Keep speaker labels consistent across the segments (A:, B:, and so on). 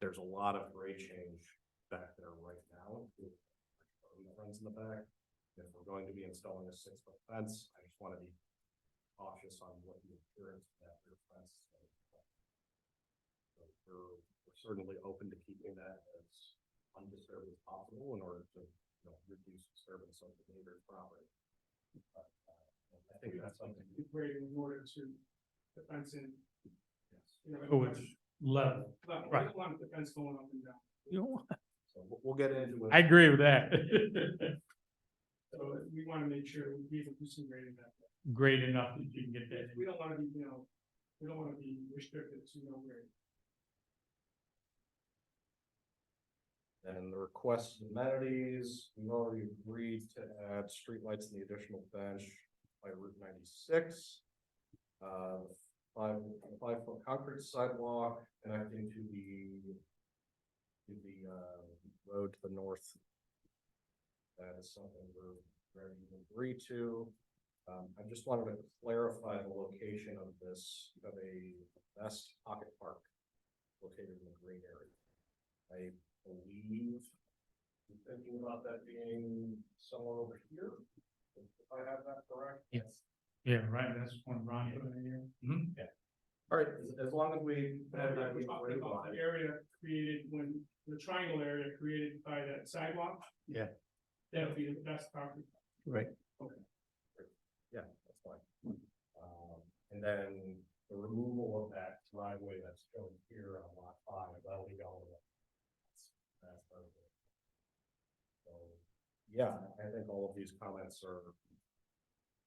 A: there's a lot of grade change back there right now. with the Fence in the back, if we're going to be installing a six foot fence, I just wanna be cautious on what the appearance of that rear fence. is gonna look like. So We're we're certainly open to keeping that as undisturbed as possible in order to, you know, reduce disturbance of the neighbor's property. But, uh, I think that's something.
B: Where in order to the fence in.
A: yes.
B: you know,
C: Oh, it's level.
B: But we
C: right.
B: don't want the fence going up and down,
A: So we'll, we'll get into it.
C: I agree with that.
B: so we wanna make sure we leave a decent grading that, way.
C: Great enough that you can get that.
B: we don't wanna be, you know, we don't wanna be restricted to no grade.
A: And the request amenities, we've already agreed to add streetlights in the additional bench by Route ninety-six. Uh, five, five foot concrete sidewalk connecting to the, to the, uh, road to the north. That is something we're ready to agree to. Um, I just wanted to clarify the location of this, of a best pocket park located in the green area. I believe I'm thinking about that being somewhere over here, if I have that correct.
C: Yes. Yeah, right, that's one Ron put in here. Mhm.
A: All right, as, as long as we have that.
B: We're talking about the area created when, the triangle area created by that sidewalk.
C: Yeah.
B: That would be the best property.
A: Yeah, that's fine. Um, and then the removal of that driveway that's shown here on lot five, that'll be gone. That's part of it. So, yeah, I think all of these comments are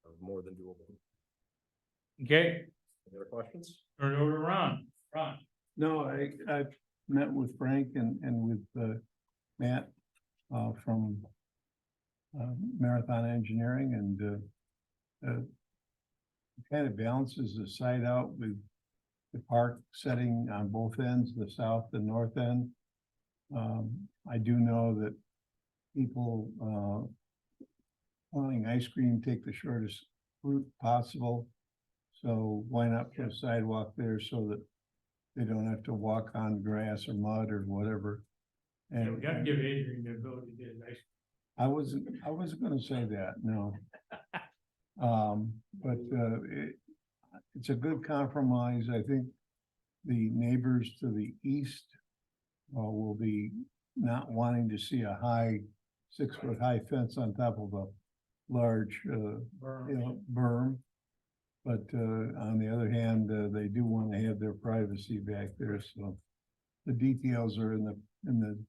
A: are more than doable.
C: Okay,
A: Any other questions?
C: turn it over to Ron. Ron,
D: No, I, I've met with Frank and, and with, uh, Matt, uh, from uh, Marathon Engineering and, uh, uh, it kind of balances the site out with the park setting on both ends, the south and north end. Um, I do know that people, uh, wanting ice cream, take the shortest route possible. So why not put a sidewalk there so that they don't have to walk on grass or mud or whatever.
C: yeah,
D: And-
C: we gotta give Adrian the ability to get a nice.
D: I wasn't, I wasn't gonna say that, no. Um, but, uh, it, it's a good compromise, I think. The neighbors to the east, uh, will be not wanting to see a high, six-foot high fence on top of a large, uh,
C: berm.
D: you know, berm. But, uh, on the other hand, uh, they do want to have their privacy back there, so the details are in the, in the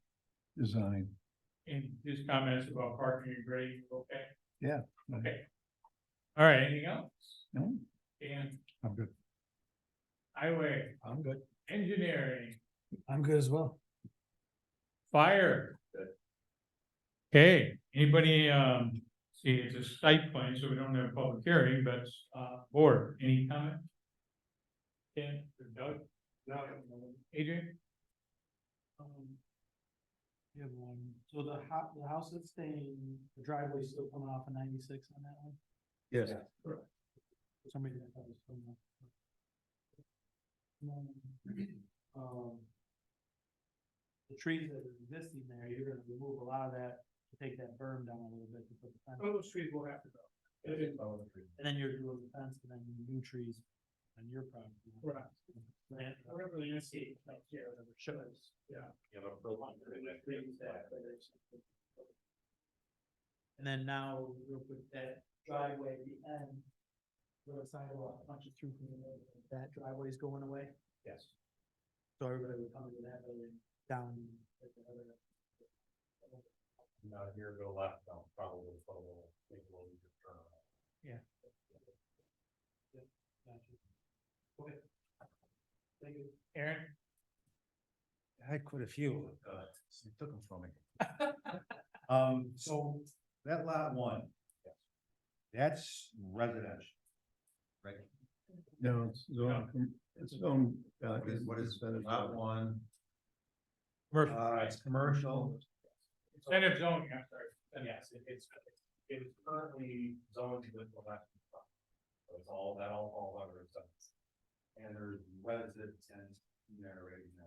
D: design.
C: And his comments about parking and grading, okay?
D: Yeah.
C: Okay. All right, anything else?
D: No,
C: Dan,
D: I'm good.
C: highway,
D: I'm good.
C: engineering,
D: I'm good as well.
C: fire. Okay, anybody, um, see, it's a site plan, so we don't have a public hearing, but, uh, board, any comment? Dan, or Doug? No. Adrian?
E: Um. You have one, so the ho- the house that's staying, the driveway's still coming off of ninety-six on that one?
D: Yes.
E: For some reason, I thought it was coming off. Um, Um. The trees that are existing there, you're gonna remove a lot of that, to take that berm down a little bit to put the fence,
B: Some of those trees will have to go. It is-
E: and then you're doing the fence, and then new trees on your property.
B: Right.
E: Plant-
B: Whatever the landscape, like, yeah, whatever shows, yeah.
A: You have a preliminary-
E: And then now we'll put that driveway at the end. Where the sidewalk punches through from the middle, that driveway is going away,
A: Yes.
E: so everybody would come to that building down. at the other end.
A: Not here, go left, I'll probably follow, maybe we'll need to turn around.
E: Gotcha. Okay. Thank you.
C: Aaron?
F: I had quite a few, uh, so you took them from me. Um, so that lot one. That's residential. Right,
D: No, it's zone, it's zone. uh,
F: what is, what is
D: it's-
F: lot one,
C: Commercial,
F: uh, it's commercial,
C: incentive zoning, I'm sorry.
A: Yes, it- it's, it's currently zoned with election. So it's all, that all, all under it.
F: and there's residents in there right now.